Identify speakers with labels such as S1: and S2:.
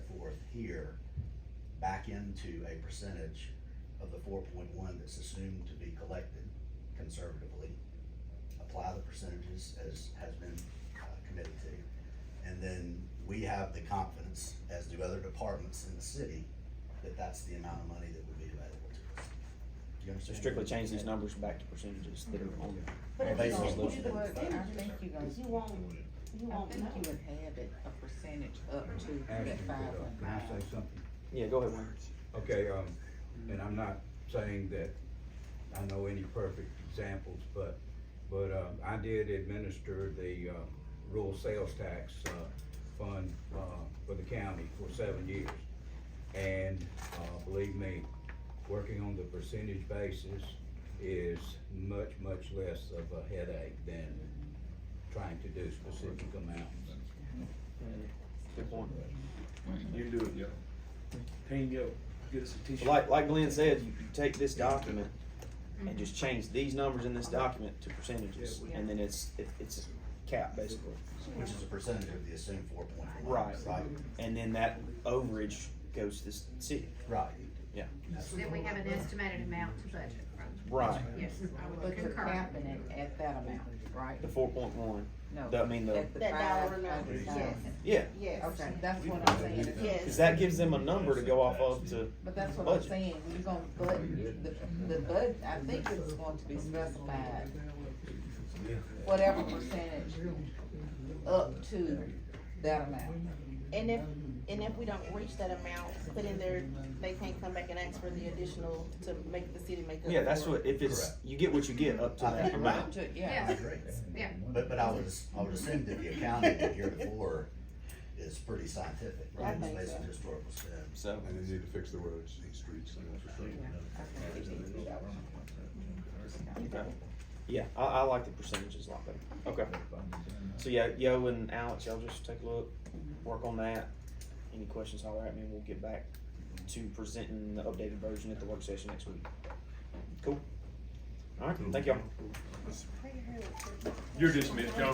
S1: here back into a percentage of the four point one that's assumed to be collected conservatively. Apply the percentages as has been uh, committed to. And then we have the confidence, as do other departments in the city, that that's the amount of money that would be available to us. Do you
S2: So
S1: understand?
S2: strictly change these numbers back to percentages that are on.
S3: But if you
S1: Based on
S3: don't
S2: those
S3: do the
S1: numbers.
S3: percentage, I think you guys, you won't, you
S4: I
S3: won't,
S4: think
S3: you
S4: you
S3: would
S4: would add it a percentage up to
S5: Ashton,
S4: that
S5: could, uh,
S4: five one
S5: can I
S4: five.
S5: say something?
S2: Yeah, go ahead, Wayne.
S5: Okay, um, and I'm not saying that I know any perfect examples, but, but, um, I did administer the, uh, rural sales tax, uh, fund, uh, for the county for seven years. And, uh, believe me, working on the percentage basis is much, much less of a headache than trying to do specific amounts.
S2: Good point.
S6: You do it, yo. Team, yo, get us a
S2: So
S6: t-shirt.
S2: Like, like Glenn said, you, you take this document and just change these numbers in this document to percentages, and then it's, it, it's a cap basically.
S1: Which is a percentage of the assumed four point one.
S2: Right.
S1: Right,
S2: And then that overage goes to the city.
S1: right.
S2: Yeah.
S7: Then we have an estimated amount to budget from.
S2: Right.
S7: Yes, I
S4: But
S7: would
S4: you're
S7: concur.
S4: capping it at that amount, right?
S2: The four point one,
S4: No.
S2: I mean the,
S4: At the
S3: That dollar
S4: five
S3: amount,
S4: hundred
S3: yes,
S4: thousand.
S2: yeah,
S3: yes,
S4: Okay, that's what I'm saying. It's-
S3: yes.
S2: cause that gives them a number to go off of to,
S4: But that's what I'm
S2: Budget.
S4: saying, we're gonna bud, the, the bud, I think it's going to be specified, whatever percentage up to that amount.
S3: And if, and if we don't reach that amount, put in there, they can't come back and ask for the additional to make the city make up.
S2: yeah, that's
S3: for
S2: what,
S3: it.
S2: if it's, you get what you get up to that amount.
S4: To-
S1: I
S4: Yeah,
S1: agree.
S7: Yeah,
S1: But, but I would, I would assume that the accounting that heretofore is pretty scientific, right? It's
S3: think
S1: based on
S3: so.
S1: historical spend.
S2: So,
S8: And they need to fix the roads, and streets, and infrastructure.
S2: okay, yeah, I, I like the percentages a lot better, okay. So yeah, Yo and Alex, y'all just take a look, work on that, any questions, holler at me, and we'll get back to presenting the updated version at the work session next week. Cool, alright, thank y'all.
S6: You're dismissed, y'all.